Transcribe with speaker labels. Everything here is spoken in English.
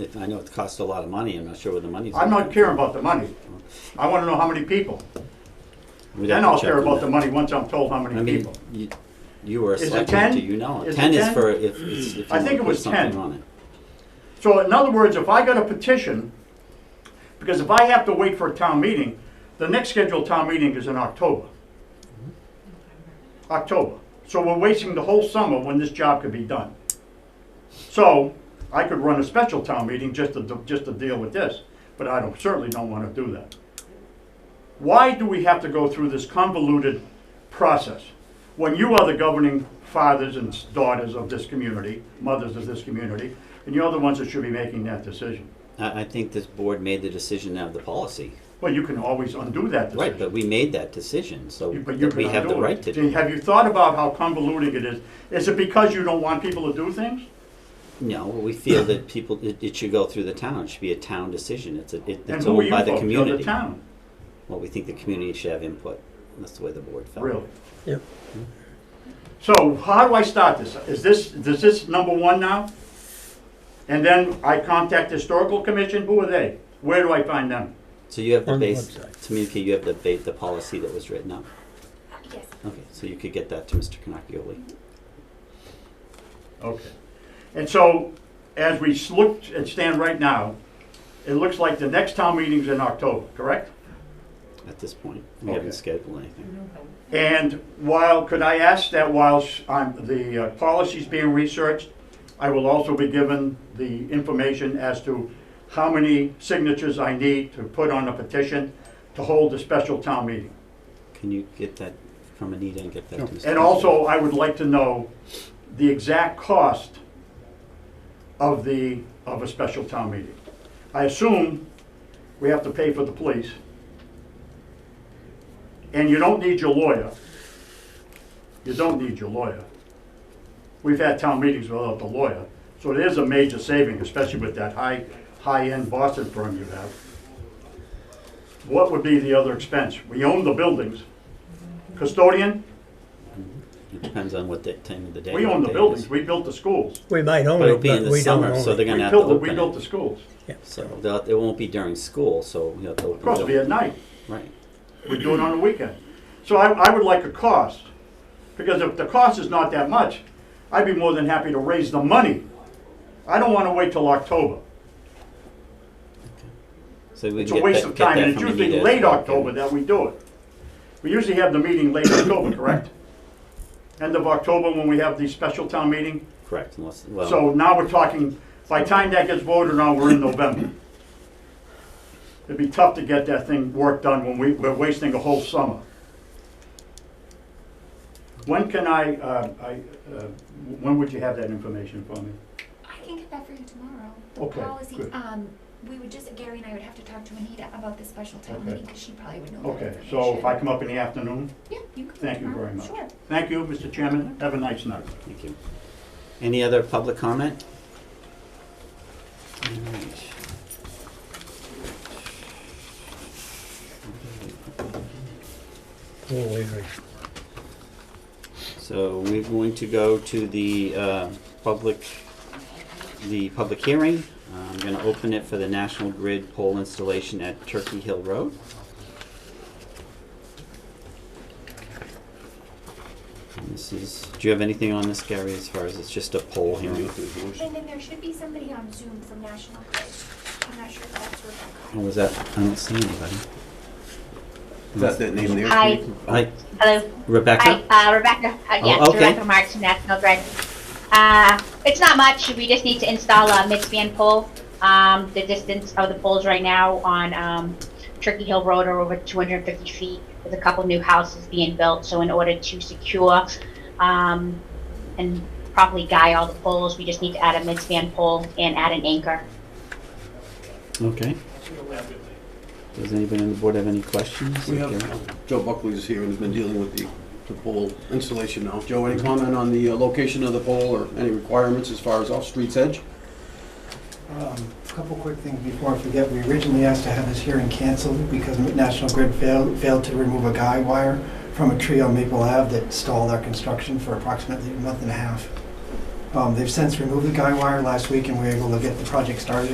Speaker 1: If- I know it costs a lot of money, I'm not sure where the money's.
Speaker 2: I'm not caring about the money. I wanna know how many people.
Speaker 1: We'd have
Speaker 2: Then
Speaker 1: to
Speaker 2: I'll
Speaker 1: check
Speaker 2: care
Speaker 1: on
Speaker 2: about
Speaker 1: that.
Speaker 2: the money once I'm told how
Speaker 1: I
Speaker 2: many
Speaker 1: mean,
Speaker 2: people.
Speaker 1: you, you were a
Speaker 2: Is it
Speaker 1: selectman, do
Speaker 2: 10?
Speaker 1: you know?
Speaker 2: Is it
Speaker 1: Ten is
Speaker 2: 10?
Speaker 1: for if, it's- if you
Speaker 2: I
Speaker 1: want
Speaker 2: think
Speaker 1: to
Speaker 2: it
Speaker 1: put
Speaker 2: was
Speaker 1: something
Speaker 2: 10.
Speaker 1: on it.
Speaker 2: So in other words, if I got a petition, because if I have to wait for a town meeting, the next scheduled town meeting is in October. October. So we're wasting the whole summer when this job could be done. So I could run a special town meeting just to, just to deal with this, but I don't, certainly don't want to do that. Why do we have to go through this convoluted process? When you are the governing fathers and daughters of this community, mothers of this community, and you're the ones that should be making that decision.
Speaker 1: I, I think this board made the decision out of the policy.
Speaker 2: Well, you can always undo that
Speaker 1: Right, but
Speaker 2: decision.
Speaker 1: we made that decision, so
Speaker 2: You- But you
Speaker 1: that we
Speaker 2: can
Speaker 1: have the
Speaker 2: undo it.
Speaker 1: right to.
Speaker 2: See, Have you thought about how convoluted it is? Is it because you don't want people to do things?
Speaker 1: No, we feel that people, it, it should go through the town, it should be a town decision, it's, a- it-
Speaker 2: And
Speaker 1: it's
Speaker 2: who are
Speaker 1: owned
Speaker 2: you
Speaker 1: by
Speaker 2: folks?
Speaker 1: the
Speaker 2: You're
Speaker 1: community.
Speaker 2: the town,
Speaker 1: Well, we think the community should have input, that's the way the board felt.
Speaker 2: really.
Speaker 3: Yep.
Speaker 2: So how do I start this? Is this, does this number one now? And then I contact historical commission, who are they? Where do I find them?
Speaker 1: So you have the
Speaker 3: On the
Speaker 1: base,
Speaker 3: website.
Speaker 1: Tamika, you have the ba, the policy that was written up?
Speaker 4: Yes.
Speaker 1: Okay, so you could get that to Mr. Canapioli.
Speaker 2: Okay. And so, as we s- look and stand right now, it looks like the next town meeting's in October, correct?
Speaker 1: at this point. We
Speaker 2: Okay.
Speaker 1: haven't scheduled anything.
Speaker 2: And while, could I ask that while I'm, the uh, policy's being researched, I will also be given the information as to how many signatures I need to put on a petition to hold a special town meeting.
Speaker 1: Can you get that from Anita and get that to Mr.
Speaker 2: And also, I would like to know the exact cost of the, of a special town meeting. I assume we have to pay for the police. And you don't need your lawyer. You don't need your lawyer. We've had town meetings without the lawyer, so it is a major saving, especially with that high, high-end Boston firm you have. What would be the other expense? We own the buildings. Custodian,
Speaker 1: It depends on what the time of the day.
Speaker 2: we
Speaker 1: what
Speaker 2: own the
Speaker 1: day it
Speaker 2: buildings,
Speaker 1: is.
Speaker 2: we built the schools.
Speaker 3: We might own
Speaker 1: But it'll
Speaker 3: it,
Speaker 1: be in
Speaker 3: but
Speaker 1: the
Speaker 3: we don't
Speaker 1: summer, so
Speaker 3: own
Speaker 1: they're
Speaker 2: We
Speaker 3: it.
Speaker 1: gonna have to
Speaker 2: built, the- we
Speaker 1: open
Speaker 2: built the
Speaker 1: it.
Speaker 2: schools.
Speaker 3: Yeah,
Speaker 1: So
Speaker 3: so,
Speaker 1: they'll- it won't be during school, so you'll have to
Speaker 2: Of course, it'll
Speaker 1: open
Speaker 2: be
Speaker 1: it
Speaker 2: at
Speaker 1: up.
Speaker 2: night,
Speaker 1: Right.
Speaker 2: we do it on the weekend. So I, I would like a cost, because if the cost is not that much, I'd be more than happy to raise the money. I don't wanna wait till October.
Speaker 1: So we
Speaker 2: It's
Speaker 1: can
Speaker 2: a
Speaker 1: get
Speaker 2: waste
Speaker 1: that-
Speaker 2: of
Speaker 1: get
Speaker 2: time,
Speaker 1: that
Speaker 2: and it's
Speaker 1: from
Speaker 2: usually
Speaker 1: Anita.
Speaker 2: late October that we do it. We usually have the meeting late October, correct? End of October when we have the special town meeting.
Speaker 1: Correct, unless, well.
Speaker 2: So now we're talking, by the time that gets voted on, we're in November. It'd be tough to get that thing, work done when we, we're wasting a whole summer. When can I, uh, I, uh, when would you have that information for me?
Speaker 4: I can get that for you tomorrow. The
Speaker 2: Okay,
Speaker 4: policy,
Speaker 2: good.
Speaker 4: um, we would just, Gary and I would have to talk to Anita about the special town
Speaker 2: Okay.
Speaker 4: meeting, because she probably would know that
Speaker 2: Okay, so if I come up in the afternoon,
Speaker 4: Yeah, you can.
Speaker 2: Thank you
Speaker 4: tomorrow.
Speaker 2: very much.
Speaker 4: Sure.
Speaker 2: thank you, Mr. Chairman, have a nice night.
Speaker 1: Thank you. Any other public comment? All right.
Speaker 3: a little eerie.
Speaker 1: So we're going to go to the uh, public, the public hearing. I'm going to open it for the National Grid pole installation at Turkey Hill Road. And This is, do you have anything on this, Gary, as far as it's just a poll hearing?
Speaker 4: And then there should be somebody on Zoom from National Grid. I'm not sure if that's Rebecca.
Speaker 1: Or was that, I don't see anybody.
Speaker 5: That's that name there.
Speaker 6: Hi.
Speaker 5: Steve?
Speaker 1: Hi,
Speaker 6: Hello.
Speaker 1: Rebecca?
Speaker 6: Hi, uh, Rebecca. Uh,
Speaker 1: Oh,
Speaker 6: yes,
Speaker 1: okay.
Speaker 6: Rebecca Marks from National Grid. Uh, it's not much. We just need to install a midspan pole. Um, the distance of the poles right now on um, Turkey Hill Road are over 250 feet. There's a couple new houses being built, so in order to secure um, and properly guy all the poles, we just need to add a midspan pole and add an anchor.
Speaker 1: Okay. Does anybody on the board have any questions?
Speaker 5: We have-
Speaker 1: Gary?
Speaker 5: Joe Buckley is here and has been dealing with the, the pole installation now. Joe, any comment on the uh, location of the pole or any requirements as far as off street's edge?
Speaker 7: Um, A Couple quick things before I forget. We originally asked to have this hearing canceled because National Grid failed, failed to remove a guy wire from a tree on Maple Ave that stalled our construction for approximately a month and a half. Um, They've since removed the guy wire last week and we were able to get the project started